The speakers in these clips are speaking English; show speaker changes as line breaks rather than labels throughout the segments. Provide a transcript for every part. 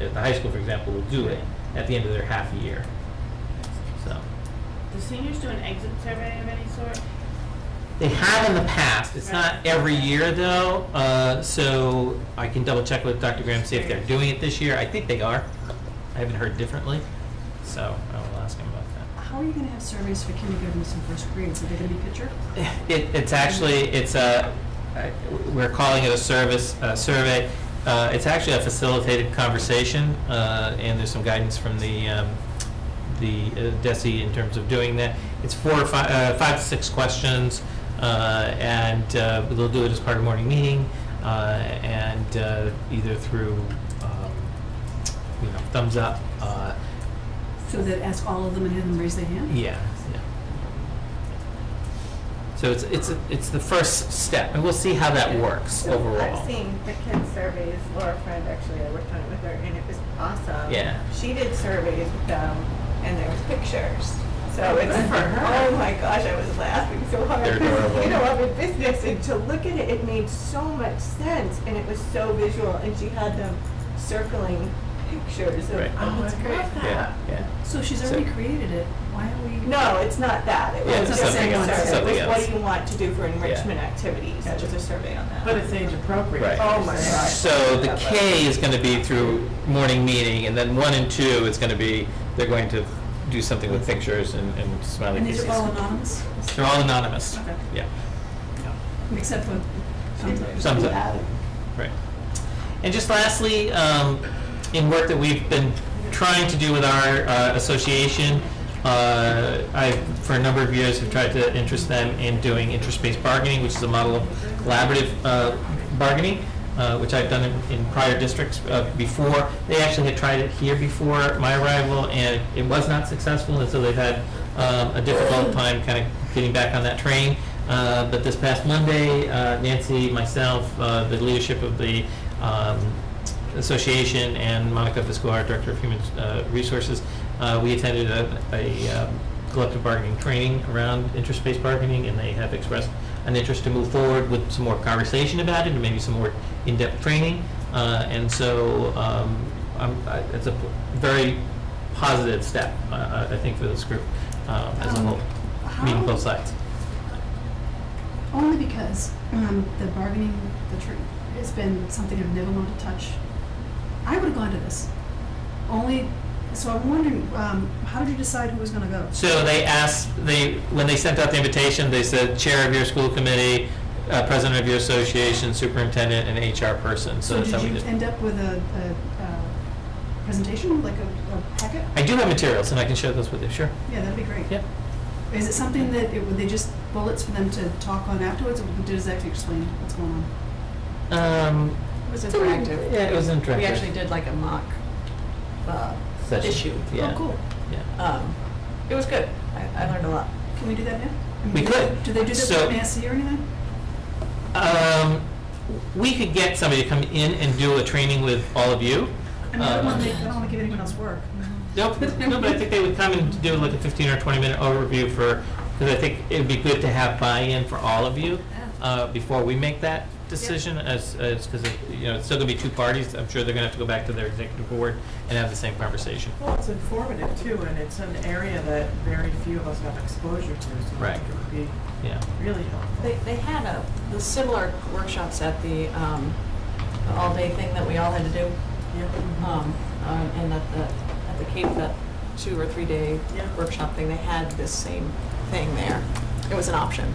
at the high school, for example, will do it at the end of their half a year. So,
Do seniors do an exit survey of any sort?
they have in the past, it's not
Right.
every year though, uh, so I can double check with Dr. Graham, see if they're doing it this year, I think they are. I haven't heard differently, so I will ask him about that.
How are you going to have surveys for kindergartens and first grades? Are they going to be picture?
It, it's actually, it's a, I- we're calling it a service, uh survey. Uh, it's actually a facilitated conversation, uh, and there's some guidance from the, um, the uh, DESI in terms of doing that. It's four or five, uh, five to six questions, uh, and, uh, they'll do it as part of morning meeting, uh, and, uh, either through, um, you know, thumbs up, uh,
So that ask all of them and have them raise their hand?
yeah, yeah. So it's, it's, it's the first step, and we'll see how that works
So I've
overall.
seen the kids' surveys, Laura Friend, actually, I worked on it with her, and it was awesome.
Yeah.
She did surveys with them, and there was pictures. So it's,
Good for her.
oh my gosh, I was laughing so hard.
They're
'cause,
adorable.
You know, I'm in business, and to look at it, it made so much sense, and it was so visual, and she had them circling pictures of,
Right.
oh,
that's
I
great.
love
Yeah,
that.
yeah.
So she's
So-
already created it. Why aren't we?
No, it's not that. It
Yeah,
was
it's
just a
something else,
survey.
something
It was, what
else.
do you want to do for enrichment activities? It was a survey on that.
But it's age appropriate.
Right.
Oh my gosh.
So the K is gonna be through morning meeting, and then one and two is gonna be, they're going to do something with pictures and and smiley
And these
faces.
are all anonymous,
They're all anonymous,
Okay.
yeah.
except for.
Thumbs up. Right. And just lastly, um, in work that we've been trying to do with our uh, association, uh, I, for a number of years, have tried to interest them in doing interest-based bargaining, which is a model of collaborative uh, bargaining, uh, which I've done in- in prior districts uh, before. They actually had tried it here before my arrival, and it was not successful, and so they've had um, a difficult time kind of getting back on that train. Uh, But this past Monday, uh, Nancy, myself, uh, the leadership of the um, association, and Monica Fiscolar, Director of Human uh, Resources, uh, we attended a- a um, collective bargaining training around interest-based bargaining, and they have expressed an interest to move forward with some more conversation about it, and maybe some more in-depth training. Uh, And so um, I'm- I- it's a p- very positive step, uh, uh, I think, for this group um, as a
Um,
whole, meeting
how-
both sides.
Only because um, the bargaining, the truth, has been something I've never wanted to touch. I would have gone to this. Only, so I'm wondering, um, how did you decide who was going to go?
So they asked, they, when they sent out the invitation, they said chair of your school committee, uh, president of your association, superintendent, and HR person, so
So
that's how
did
we
you
did. it.
end up with a, a, uh presentation, like a, a packet?
I do have materials, and I can share those with you, sure.
Yeah, that'd be great.
Yep.
Is it something that, it- were they just bullets for them to talk on afterwards, or does that actually explain what's going on?
Um,
It was
it's a little-
interactive.
Yeah, it was interactive.
We actually did like a mock uh,
Session.
issue.
Yeah.
Oh, cool.
Yeah.
Um, It was good. I I learned a lot.
Can we do that now? I mean,
We
do they-
could.
Do they do this
So-
for MASC or anything?
Um, we could get somebody to come in and do a training with all of you.
I mean, I don't
Um,
want to, I don't want to give anyone else work.
Nope, no, but I think they would come and do like a fifteen or twenty minute overview for, because I think it'd be good to have buy-in for all of you uh, before we make that decision as, as, because, you know, it's still gonna be two parties. I'm sure they're gonna have to go back to their executive board and have the same conversation.
Well, it's informative too, and it's an area that very few of us have exposure to, so
Right.
it could be
Yeah,
really helpful.
They, they had a, the similar workshops at the, um, the all-day thing that we all had to do,
Yeah.
um, uh, and at the, at the Cape, that two or three-day
Yeah.
workshop thing, they had this same thing there. It was an option,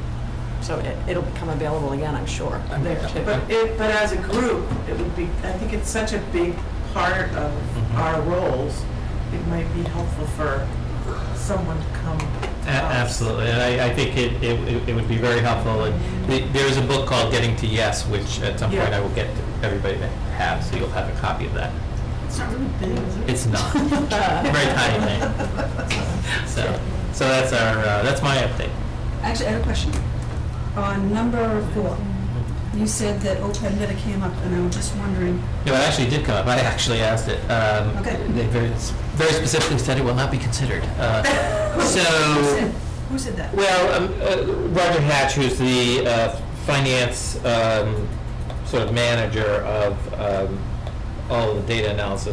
so it, it'll become available again, I'm sure,
I'm-
there too.
But it, but as a group, it would be, I think it's such a big part of
Mhm.
our roles, it might be helpful for someone to come.
A-
to us.
absolutely. And I, I think it, it- it, it would be very helpful. And the- There is a book called Getting to Yes, which at some point
Yeah.
I will get to everybody to have, so you'll have a copy of that.
It's not really big, is it?
It's not, very tiny thing. So, so that's our, uh, that's my update.
Actually, I have a question. On number four, you said that OPEB never came up, and I was just wondering,
No, it actually did come up. I actually asked it. Um,
Okay.
They very, very specifically said it will not be considered. Uh,
who
So,
said, who said that?
well, um, uh, Roger Hatch, who's the uh, finance um, sort of manager of um, all of the data analysis